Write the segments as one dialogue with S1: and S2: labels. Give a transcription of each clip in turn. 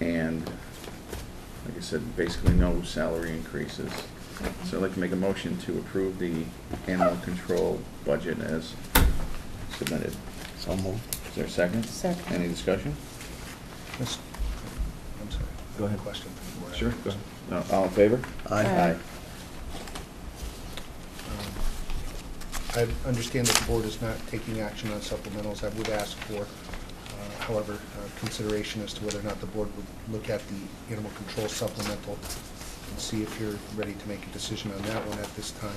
S1: and, like I said, basically no salary increases. So I'd like to make a motion to approve the animal control budget as submitted.
S2: So moved.
S1: Is there a second?
S3: Second.
S1: Any discussion?
S4: Miss- I'm sorry.
S1: Go ahead.
S4: Question. for the board.
S1: Sure, go ahead. No, All in favor?
S3: Aye.
S4: Um, I understand that the board is not taking action on supplementals. I would ask for, uh, however, uh, consideration as to whether or not the board would look at the animal control supplemental and see if you're ready to make a decision on that one at this time.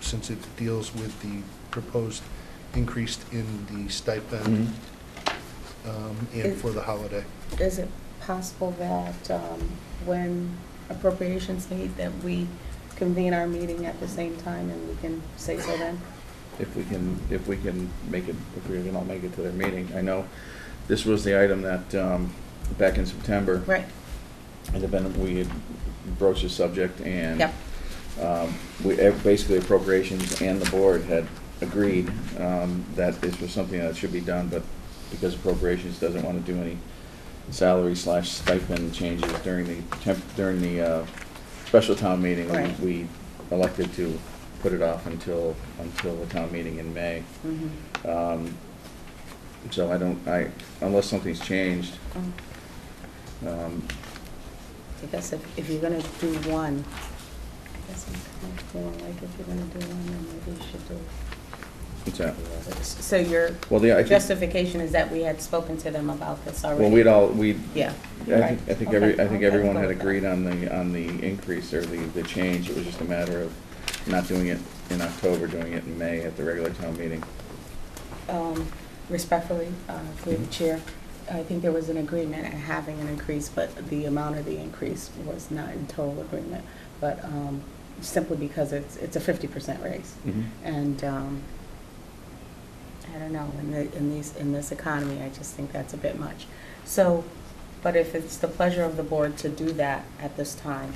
S4: Since it deals with the proposed increase in the
S1: Mhm.
S4: stipend
S1: Mm-hmm.
S4: um, and for the holiday.
S3: Is it possible that um, when appropriations meet, that we convene our meeting at the same time and we can say so then?
S1: if we can, if we can make it, if we can all make it to their meeting. I know this was the item that, um, back in September.
S3: Right,
S1: And then we had broached the subject and.
S3: Yep.
S1: Um, we, ev- basically appropriations and the board had agreed, um, that this was something that should be done, but because appropriations doesn't want to do any salary slash stipend changes during the temp, during the, uh, special town meeting. we-
S3: Right.
S1: We elected to put it off until, until the town meeting in May.
S3: Mhm.
S1: Um, So I don't, I, unless something's changed,
S3: Um, Mm.
S1: um,
S3: I guess if, if you're gonna do one, I guess I'm kind of feeling like if you're gonna do one, then maybe you should do.
S1: what's that?
S3: the others. So your
S1: Well, the, I think,
S3: justification is that we had spoken to them about this already?
S1: well, we'd all, we,
S3: Yeah.
S1: I
S3: right.
S1: think, I think
S3: Okay,
S1: every, I think
S3: okay,
S1: everyone
S3: I'll
S1: had
S3: go with that.
S1: agreed on the, on the increase or the, the change. It was just a matter of not doing it in October, doing it in May at the regular town meeting.
S3: Um, Respectfully, uh, through the chair, I think there was an agreement at having an increase, but the amount of the increase was not in total agreement. But um, simply because it's, it's a fifty percent raise. And um, I don't know, in the, in these, in this economy, I just think that's a bit much. So, but if it's the pleasure of the board to do that at this time,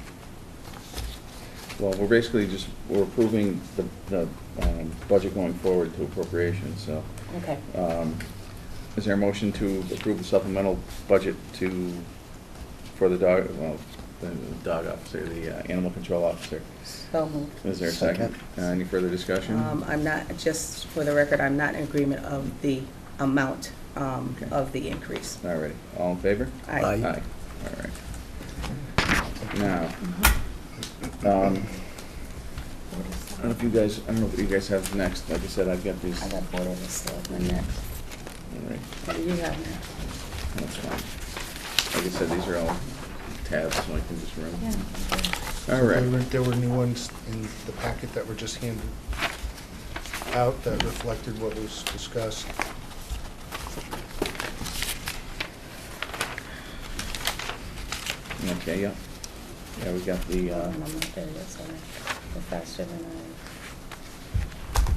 S1: Well, we're basically just, we're approving the, the, um, budget going forward to appropriations, so.
S3: okay.
S1: Um, Is there a motion to approve the supplemental budget to, for the dog, well, the dog officer, the uh, animal control officer?
S3: So moved.
S1: Is there a second? Uh,
S2: Second.
S1: Any further discussion?
S3: Um, I'm not, just for the record, I'm not in agreement of the amount um,
S1: Okay.
S3: of the increase.
S1: All righty, all in favor?
S3: Aye.
S2: Aye.
S1: all right. Now,
S3: Mm-hmm.
S1: um, I don't know if you guys, I don't know what you guys have next, like I said, I've got these.
S3: I
S1: All
S3: got Board of Selectmen next.
S1: right,
S3: What do you have next?
S1: that's fine. Like I said, these are all tabs, so I can just run. All
S4: There were-
S1: right,
S4: There were new ones in the packet that were just handed out that reflected what was discussed.
S1: okay, yeah. Yeah, we got the,
S3: Hold
S1: uh,
S3: on, I'm not there yet, sorry. We're faster than I.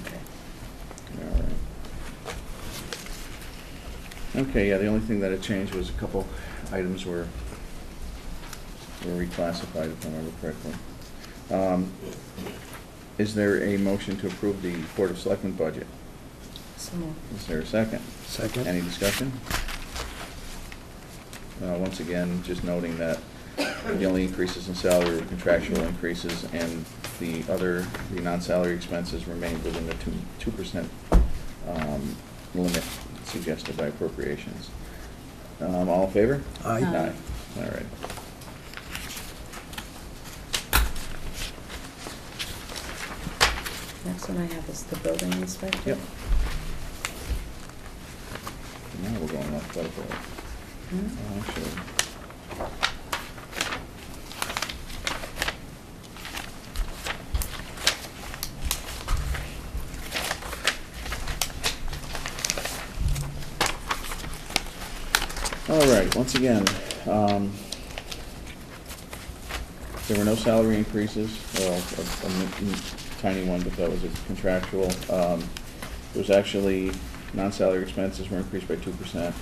S3: Okay.
S1: all right. Okay, yeah, the only thing that had changed was a couple items were, were reclassified, if I remember correctly. Um, Is there a motion to approve the Board of Selectmen budget?
S3: So moved.
S1: Is there a second?
S2: Second.
S1: Any discussion? Uh, Once again, just noting that the only increases in salary were contractual increases, and the other, the non-salary expenses remained within the two, two percent um, limit suggested by appropriations. Um, All in favor?
S2: Aye.
S3: Aye.
S1: All right.
S3: Next one I have is the building inspector.
S1: Yep. Now we're going off alphabetical. Oh,
S3: Hmm?
S1: Actually, All right, once again, um, there were no salary increases, well, a, a mi- mi- tiny one, but that was a contractual. Um, there was actually, non-salary expenses were increased by two percent.